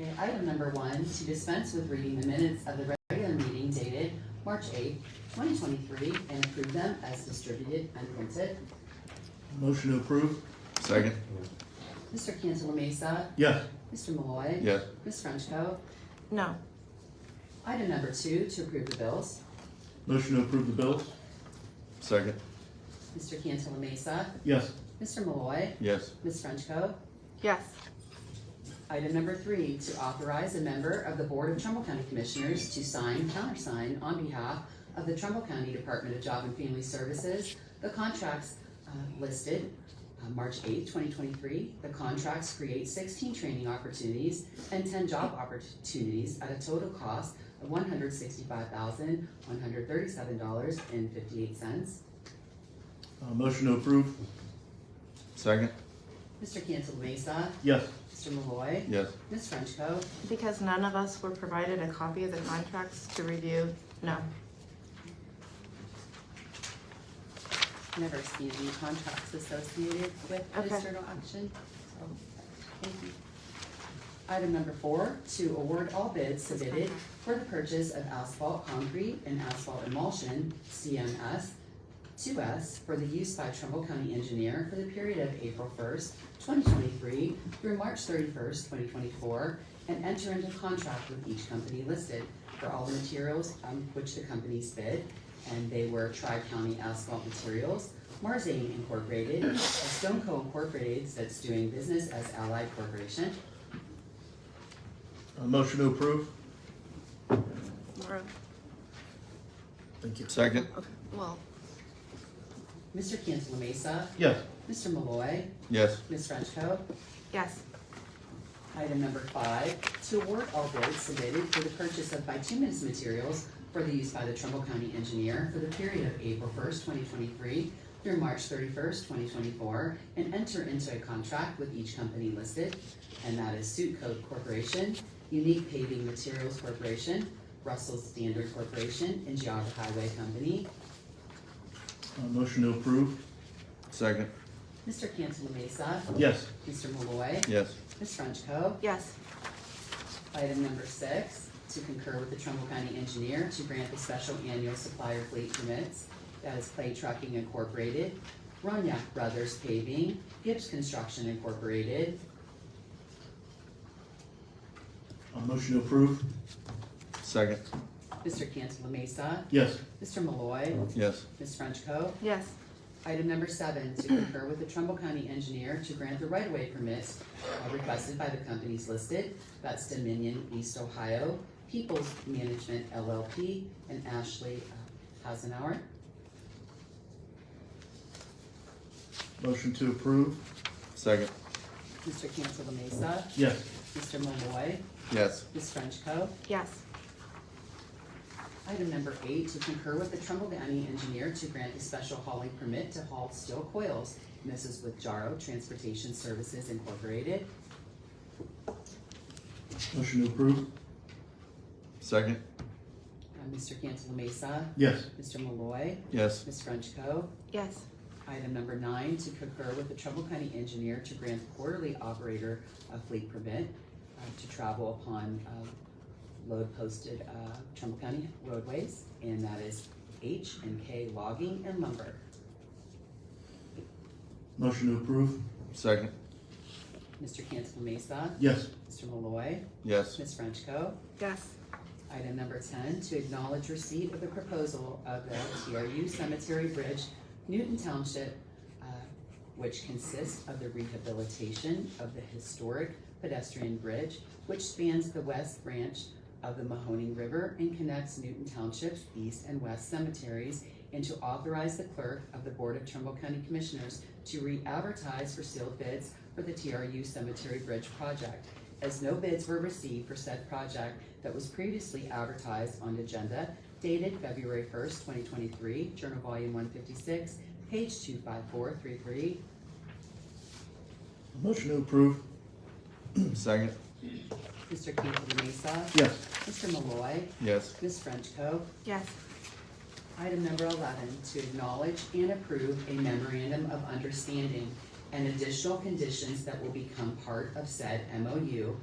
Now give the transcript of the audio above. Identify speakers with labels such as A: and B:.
A: Okay, item number one, to dispense with reading the minutes of the regular meeting dated March eighth, twenty twenty-three, and approve them as distributed and printed.
B: Motion to approve?
C: Second?
A: Mr. Cancela Mesa,
B: Yes.
A: Mr. Malloy.
C: Yes.
A: Ms. Frenchco.
D: no,
A: Item number two, to approve the bills.
B: Motion to approve the bills?
C: Second?
A: Mr. Cancela Mesa,
B: Yes.
A: Mr. Malloy,
C: Yes.
A: Ms. Frenchco.
D: yes,
A: Item number three, to authorize a member of the Board of Trumbull County Commissioners to sign, countersign on behalf of the Trumbull County Department of Job and Family Services, the contracts uh, listed, uh, March 8, 2023. The contracts create 16 training opportunities and 10 job opportunities at a total cost of $165,137.58.
B: Uh, motion to approve?
C: Second?
A: Mr. Cancel Mesa,
B: Yes.
A: Mr. Malloy,
C: Yes.
A: Ms. Frenchco.
D: because none of us were provided a copy of the contracts to review, no.
A: never see any contracts associated with
D: Okay.
A: this journal action. so, thank you. Item number four, to award all bids submitted for the purchase of asphalt concrete and asphalt emulsion, CMS, to us for the use by Trumbull County Engineer for the period of April first, twenty twenty-three through March thirty-first, twenty twenty-four, and enter into contract with each company listed for all the materials um, which the companies bid, and they were Tri-County Asphalt Materials, Marzane Incorporated, Stoneco Incorporated that's doing business as Allied Corporation,
B: Uh, motion to approve?
D: Laura,
B: Thank you.
C: Second?
D: okay, well,
A: Mr. Cantala Mesa,
B: Yes.
A: Mr. Malloy,
C: Yes.
A: Ms. Frenchco.
D: yes,
A: Item number five, to award all bids submitted for the purchase of bituminous materials for the use by the Trumbull County Engineer for the period of April first, twenty twenty-three through March thirty-first, twenty twenty-four, and enter into a contract with each company listed, and that is Suit Coat Corporation, Unique Paving Materials Corporation, Russell Standard Corporation, and Geauga Highway Company.
B: Uh, motion to approve?
C: Second?
A: Mr. Cantala Mesa,
B: Yes.
A: Mr. Malloy,
C: Yes.
A: Ms. Frenchco.
D: yes,
A: Item number six, to concur with the Trumbull County Engineer to grant the special annual supplier fleet permits. That is Clay Trucking Incorporated, Ronyak Brothers Paving, Gibbs Construction Incorporated.
B: Uh, motion to approve?
C: Second?
A: Mr. Cantala Mesa,
B: Yes.
A: Mr. Malloy,
C: Yes.
A: Ms. Frenchco.
D: yes,
A: Item number seven, to concur with the Trumbull County Engineer to grant the right-of-way permits uh, requested by the companies listed. That's Dominion East Ohio, Peoples Management LLP, and Ashley uh, Hasenauer.
B: Motion to approve?
C: Second?
A: Mr. Cancela Mesa,
B: Yes.
A: Mr. Malloy,
C: Yes.
A: Ms. Frenchco.
D: yes,
A: Item number eight, to concur with the Trumbull County Engineer to grant a special hauling permit to haul steel coils. And this is with Jaro Transportation Services Incorporated.
B: Motion to approve?
C: Second?
A: Uh, Mr. Cancela Mesa,
B: Yes.
A: Mr. Malloy,
C: Yes.
A: Ms. Frenchco.
D: yes,
A: Item number nine, to concur with the Trumbull County Engineer to grant quarterly operator a fleet permit uh, to travel upon uh, load posted uh, Trumbull County roadways, and that is H and K Logging and Lumber.
B: Motion to approve?
C: Second?
A: Mr. Cancel Mesa,
B: Yes.
A: Mr. Malloy,
C: Yes.
A: Ms. Frenchco.
D: yes,
A: Item number ten, to acknowledge receipt of the proposal of the TRU Cemetery Bridge, Newton Township, uh, which consists of the rehabilitation of the historic pedestrian bridge, which spans the west branch of the Mahoning River and connects Newton Township's east and west cemeteries, and to authorize the clerk of the Board of Trumbull County Commissioners to re-advertise for sealed bids for the TRU Cemetery Bridge project. As no bids were received for said project, that was previously advertised on agenda dated February first, twenty twenty-three, Journal Volume one fifty-six, page two five four three three.
B: Motion to approve?
C: Second?
A: Mr. Cantala Mesa.
B: Yes.
A: Mr. Malloy.
C: Yes.
A: Ms. Frenchco.
D: yes,
A: Item number eleven, to acknowledge and approve a memorandum of understanding and additional conditions that will become part of said MOU